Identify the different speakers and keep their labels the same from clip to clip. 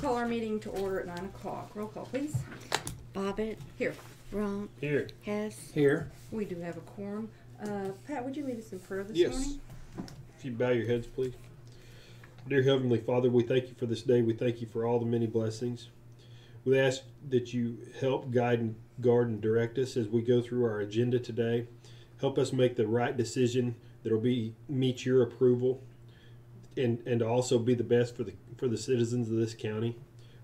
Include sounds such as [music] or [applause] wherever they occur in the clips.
Speaker 1: call our meeting to order at nine o'clock. Roll call, please.
Speaker 2: Bobbit,
Speaker 1: Here,
Speaker 2: Wrong,
Speaker 3: Here.
Speaker 2: Hess,
Speaker 4: Here.
Speaker 1: we do have a quorum. Uh, Pat, would you lead us in prayer this
Speaker 3: Yes.
Speaker 1: morning?
Speaker 3: If you bow your heads, please. Dear Heavenly Father, we thank you for this day. We thank you for all the many blessings. We ask that you help guide and guard and direct us as we go through our agenda today. Help us make the right decision that'll be meet your approval and and also be the best for the for the citizens of this county.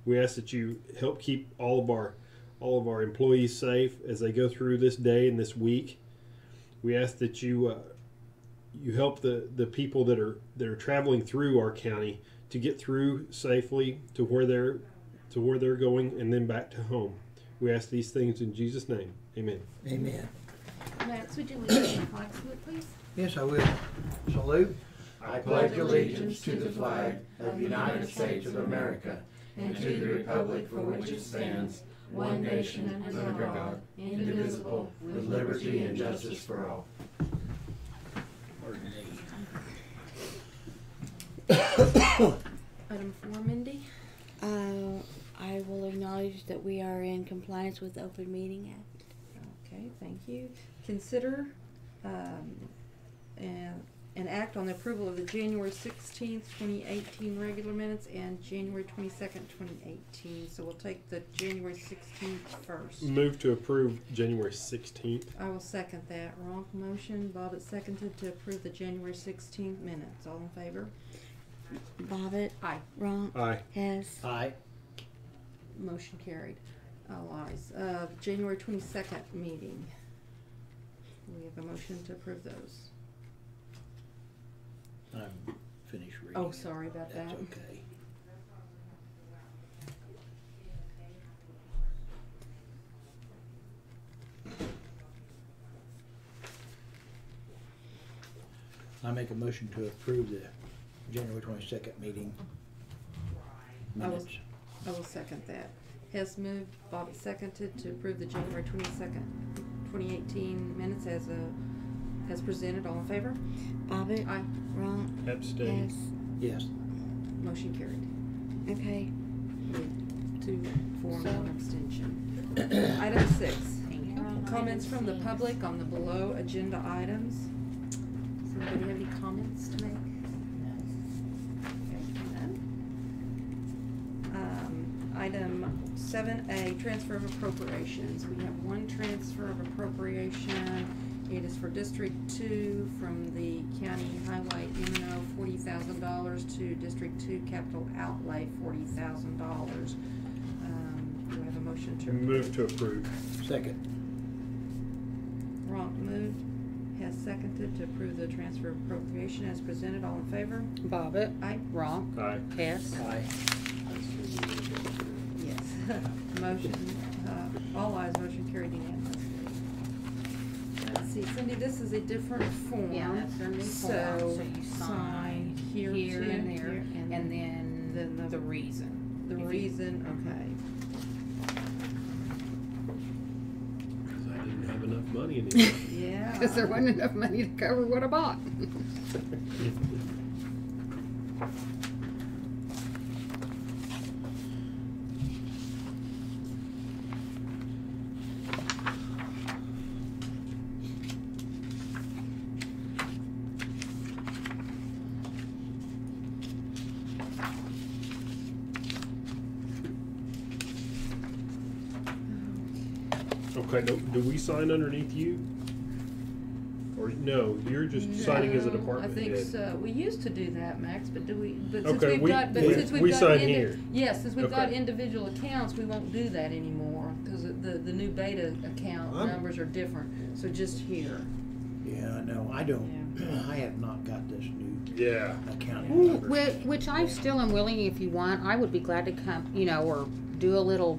Speaker 3: We ask that you help keep all of our all of our employees safe as they go through this day and this week. We ask that you uh, you help the, the people that are that are traveling through our county to get through safely to where they're to where they're going and then back to home. We ask these things in Jesus' name. Amen.
Speaker 4: Amen.
Speaker 1: Max, would you lead us in flag salute, please?
Speaker 4: Yes, I will. Salute.
Speaker 5: I pledge allegiance to the flag of the United States of America and to the republic for which it stands, one nation under God, indivisible, with liberty and justice for all.
Speaker 1: Item four, Mindy.
Speaker 2: uh, I will acknowledge that we are in compliance with the Open Meeting Act.
Speaker 1: Okay, thank you. Consider um, an an act on the approval of the January sixteenth, twenty eighteen regular minutes and January twenty-second, twenty eighteen. So we'll take the January sixteenth first.
Speaker 3: Move to approve January sixteenth.
Speaker 1: I will second that. Wrong motion. Bobbit seconded to approve the January sixteenth minutes. All in favor?
Speaker 2: Bobbit,
Speaker 1: Aye.
Speaker 2: Wrong,
Speaker 3: Aye.
Speaker 2: Hess,
Speaker 4: Aye.
Speaker 1: Motion carried. All ayes. Uh, January twenty-second meeting. We have a motion to approve those.
Speaker 4: I'm finished reading.
Speaker 1: Oh,
Speaker 4: it.
Speaker 1: sorry about
Speaker 4: That's
Speaker 1: that.
Speaker 4: okay. I make a motion to approve the January twenty-second meeting
Speaker 1: I will-
Speaker 4: minutes.
Speaker 1: I will second that. Hess moved, Bobbit seconded to approve the January twenty-second, twenty eighteen minutes as a, as presented. All in favor?
Speaker 2: Bobbit,
Speaker 1: Aye.
Speaker 2: Wrong, Hess.
Speaker 3: Abstain.
Speaker 4: Yes,
Speaker 1: Motion carried.
Speaker 2: Okay,
Speaker 1: With Two, four, and one abstention. Item six, comments from the public on the below agenda items. Does anybody have any comments to make? Okay, none. Um, Item seven A, transfer of appropriations. We have one transfer of appropriation. It is for District Two from the County Highway M and O forty thousand dollars to District Two Capital Outlay forty thousand dollars. Um, Do we have a motion to? approve?
Speaker 3: Move to approve.
Speaker 4: second.
Speaker 1: Ronk moved, has seconded to approve the transfer of appropriation as presented. All in favor?
Speaker 6: Bobbit,
Speaker 1: Aye.
Speaker 6: Wrong,
Speaker 3: Aye.
Speaker 6: Hess,
Speaker 4: Aye.
Speaker 1: Yes. [laughs] Motion, uh, all ayes, motion carried unanimously. Let's see, Cindy, this is a different form.
Speaker 6: Yeah, that's their new form, so you sign
Speaker 1: here,
Speaker 6: here
Speaker 1: too,
Speaker 6: and there,
Speaker 1: and
Speaker 6: and
Speaker 1: then the-
Speaker 6: then the reason.
Speaker 1: The
Speaker 6: if you-
Speaker 1: reason, okay.
Speaker 3: Because I didn't have enough money anymore.
Speaker 1: Yeah.
Speaker 6: [laughs] Cause there wasn't enough money to cover what I bought.
Speaker 3: [laughs] okay. Do, do we sign underneath you? Or no, you're just signing as a
Speaker 1: No,
Speaker 3: department
Speaker 1: I think
Speaker 3: head.
Speaker 1: so. We used to do that, Max, but do we, but since
Speaker 3: Okay,
Speaker 1: we've
Speaker 3: we-
Speaker 1: got, but
Speaker 3: we-
Speaker 1: since
Speaker 3: we
Speaker 1: we've got.
Speaker 3: sign
Speaker 1: indi-
Speaker 3: here.
Speaker 1: Yes, since we've got
Speaker 3: Okay.
Speaker 1: individual accounts, we won't do that anymore, cause the, the new beta account
Speaker 3: I'm-
Speaker 1: numbers are different, so just here.
Speaker 4: Yeah, no, I don't, [clears throat] I have not got this new
Speaker 3: Yeah.
Speaker 4: accounting
Speaker 6: Ooh,
Speaker 4: number.
Speaker 6: Which, which I still am willing, if you want, I would be glad to come, you know, or do a little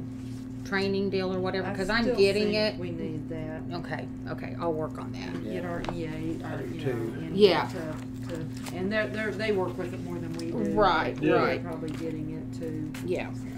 Speaker 6: training deal or whatever,
Speaker 1: I
Speaker 6: cause I'm
Speaker 1: still
Speaker 6: getting
Speaker 1: think
Speaker 6: it.
Speaker 1: We need that,
Speaker 6: Okay, okay, I'll work on that.
Speaker 1: and get our EA, our,
Speaker 4: I do
Speaker 1: you know,
Speaker 4: too.
Speaker 1: input
Speaker 6: Yeah.
Speaker 1: to, to, and they're, they're, they work with it more than we do.
Speaker 6: Right,
Speaker 1: They're
Speaker 3: right.
Speaker 1: Probably getting it too.
Speaker 6: Yeah,
Speaker 1: so.